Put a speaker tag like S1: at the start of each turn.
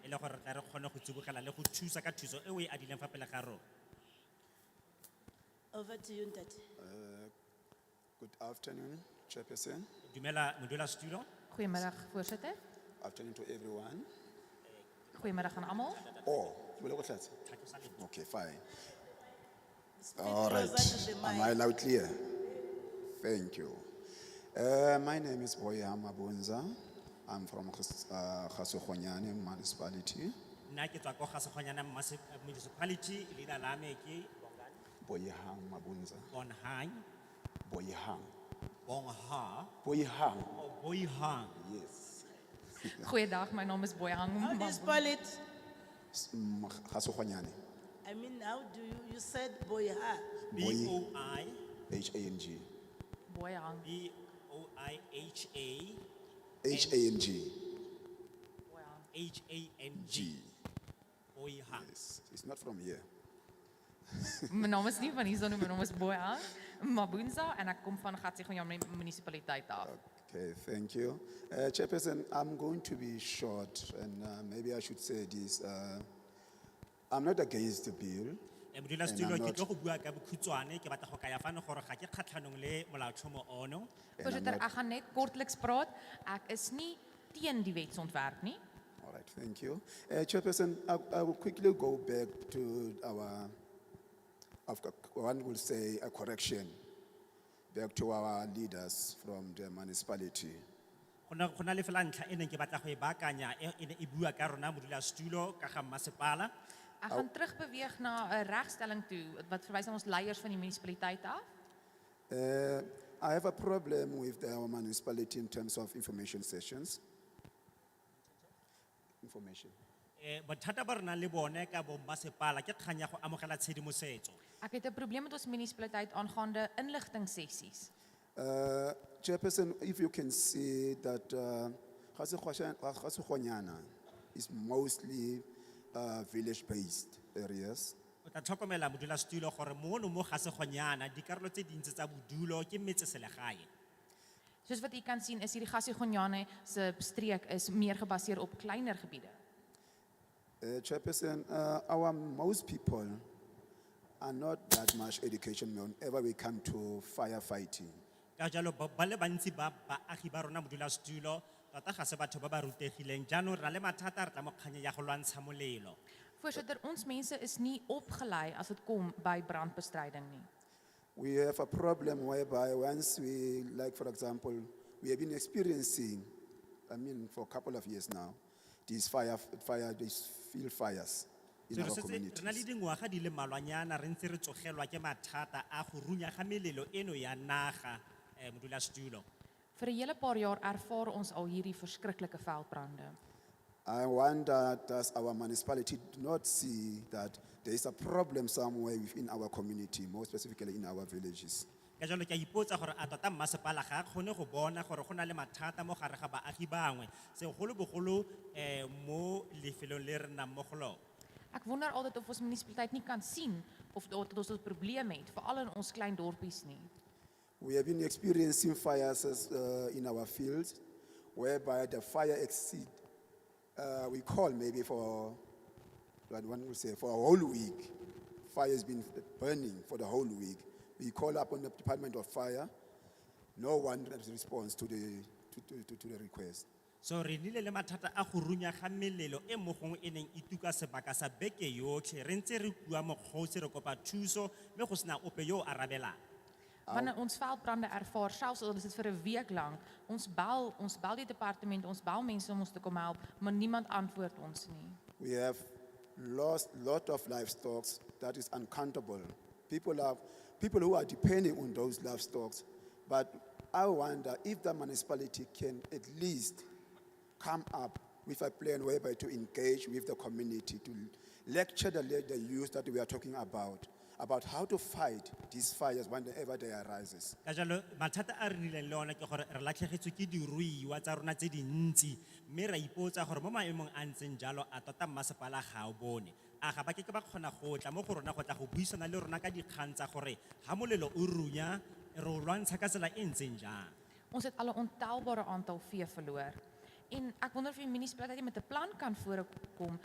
S1: E le gore re tle re kgone go tsibogela le go thusa ka thuso e o e adileng fa pele ga rona
S2: Over to you, Ndati.
S3: Good afternoon, Chairperson.
S1: dumela modulasetulo
S4: Goedemiddag voorzitter.
S3: Afternoon to everyone.
S4: Goedemiddag aan allemaal.
S3: Oh, you will go
S1: tlhalosa lebaka.
S3: Okay, fine.
S2: Speak
S3: All right.
S2: closer to the
S3: Am
S2: mic.
S3: I loud clear? Thank you. Uh, my name is Boya Mabunza. I'm from Khasukhonyani municipality.
S1: nna ke tswa ko ga segonyana Mmase- eh, municipality leina la me ke
S3: Boya Mabunza.
S1: bonhang
S3: Boya
S1: bongha
S3: Boya
S1: or boihang
S3: Yes.
S4: Goeiedag, mijn naam is Boyang.
S2: How do you spell it?
S3: Khasukhonyani.
S2: I mean, how do you, you said Boyha.
S1: b
S3: Boy
S1: o i
S3: H A N G.
S4: Boyang.
S1: b o i h a
S3: H A N G.
S4: Boyang.
S1: h a n
S3: G.
S1: g boihang
S3: Yes. It's not from here.
S4: Mijn naam is niet van Izo, mijn naam is Boyang Mabunza en ik kom van Gatsigonyam municipaliteit af.
S3: Okay, thank you. Uh, Chairperson, I'm going to be short, and uh, maybe I should say this. uh, I'm not against the bill.
S1: Eh, modulasetulo
S3: And I'm
S1: ke
S3: not-
S1: tlo go bua ka bokhutswane ke batla go kaya fano gore ga ke kgatlhanong le molaotlhomo ono
S3: and I'm
S4: Voorzitter,
S3: not-
S4: ik ga net kortelijks praat. Ik is niet tegen die wetsontwerp nie.
S3: All right, thank you. Uh, Chairperson, I, I will quickly go back to our, of co- one will say a correction, back to our leaders from the municipality.
S1: Go na- go na le fela ntlha e neng ke batla go e baakanya e e ne e bua ka rona modulasetulo ka ga mmasepala
S4: Ek gaan terugbeweeg na 'n regstelling toe wat verwys na ons leiers van die munisipaliteit af.
S3: Uh, I have a problem with our municipality in terms of information sessions. Information.
S1: Eh, bothata ba re nang le bone ka bo mmasepala ke kgang ya go amogela tshedimosetso
S4: Ek het 'n probleem met ons munisipaliteit aangaande inligtingsessies.
S3: Uh, Chairperson, if you can see that uh, Khasukhonyana uh, is mostly uh, village-based areas.
S1: o tla tlhokomela modulasetulo gore mono mo ga segonyana dikarolo tse dintsi tsa bodulo ke metseselegae
S4: Soos wat u kan sien is hierdie Gasigonyane se streek is meer gebaseer op kleiner gebiede.
S3: Uh, Chairperson, uh, our most people are not that much education whenever we come to firefighting.
S1: ka jalo ba ba le bantsi ba baagi ba rona modulasetulo tota ga se batho ba ba rutegileng jaanong re na le mathata re tla mo kganye ya go lwantsha molelo
S4: Voorsitter, ons mense is nie opgelei as dit kom by brandbestryding nie.
S3: We have a problem whereby once we, like for example, we have been experiencing, I mean, for a couple of years now, these fire, fire, these field fires in
S1: So
S3: our
S1: re setse re na le
S3: communities.
S1: dingwaga di le malwanyana re ntse re tsogelwa ke mathata a go runya ga melelo eno ya naga um modulasetulo
S4: Vir 'n hele paar jaar ervaar ons al hierdie verskriklike veldbrande.
S3: I wonder, does our municipality not see that there is a problem somewhere within our community, more specifically in our villages?
S1: ka jalo ke a ipotsa gore a tota mmasepala ga a kgone go bona gore go na le mathata mo gare ga baagi bangwe segolobogolo um mo lefelong le re nnang mo go lone
S4: Ek wonder altyd of ons munisipaliteit nie kan sien of daar dat ons 'n probleem het, veral in ons klein dorpies nie.
S3: We have been experiencing fires as, uh, in our fields whereby the fire exceed, uh, we call maybe for, what one would say, for a whole week. Fire has been burning for the whole week. We call upon the Department of Fire. No one responds to the, to, to, to, to the request.
S1: so re nnile le mathata a go runya ga melelo e mo gongwe e neng e tuka sebaka sa beke yotlhe re ntse re kua mokgosi re kopa thuso mme go sena ope yo o arabelang
S4: Wanneer ons veldbrande ervaar, selfs al is dit vir 'n week lank, ons bel, ons bel die departement, ons bel mense om ons te kom help, maar niemand antwoord ons nie.
S3: We have lost lot of livestock that is uncountable. People are people who are depending on those livestock. But I wonder if the municipality can at least come up with a plan whereby to engage with the community to lecture the, the youth that we are talking about about how to fight these fires whenever they arises.
S1: ka jalo mathata a re nnileng le one ke gore re latlhegetswe ke diruiwa tsa rona tse dintsi mme ra ipotsa gore mo maemong a ntseng jalo a tota mmasepala ga o bone a ga ba ke ke ba kgona go tla mo go rona go tla go buisana le rona ka dikgang tsa gore ga molelo o runya re o lwantsha ka tsela e ntseng jang
S4: Ons het al 'n ontelbare aantal vee verloor. En ek wonder of die munisipaliteit nie met 'n plan kan voorkom